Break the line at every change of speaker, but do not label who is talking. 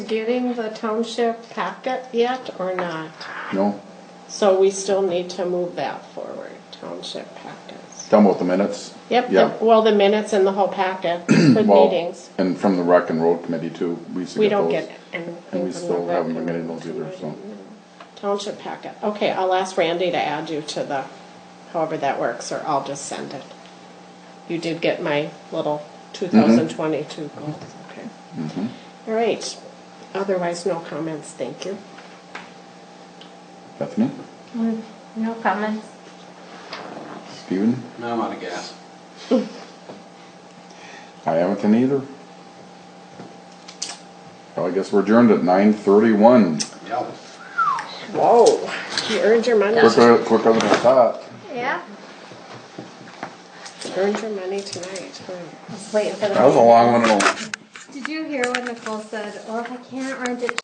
getting the township packet yet or not?
No,
So we still need to move that forward, township packets.
talking about the minutes?
Yep, the-
Yeah.
well, the minutes and the whole packet for
Well,
meetings.
And from the rec and road committee too, we used to
We
get those.
don't get anything
And we
from the
still
rec
haven't been
and
getting
road
those either, so.
committee. Township packet. Okay, I'll ask Randy to add you to the, however that works, or I'll just send it. You did get my little
Mm-hmm.
2022 goals, okay. All right, otherwise, no comments, thank you.
Bethany,
Mm, No comments.
Steven,
Now I'm out of gas.
I haven't been either. Well, I guess we're adjourned at nine thirty-one.
Yep.
Whoa. You earned your money,
Quicker, quicker than I uh, thought.
Yeah.
earned your money tonight. huh?
I was waiting for the.
That was a long one, and a-
Did you hear when Nicole said, "Oh, if I can't rent it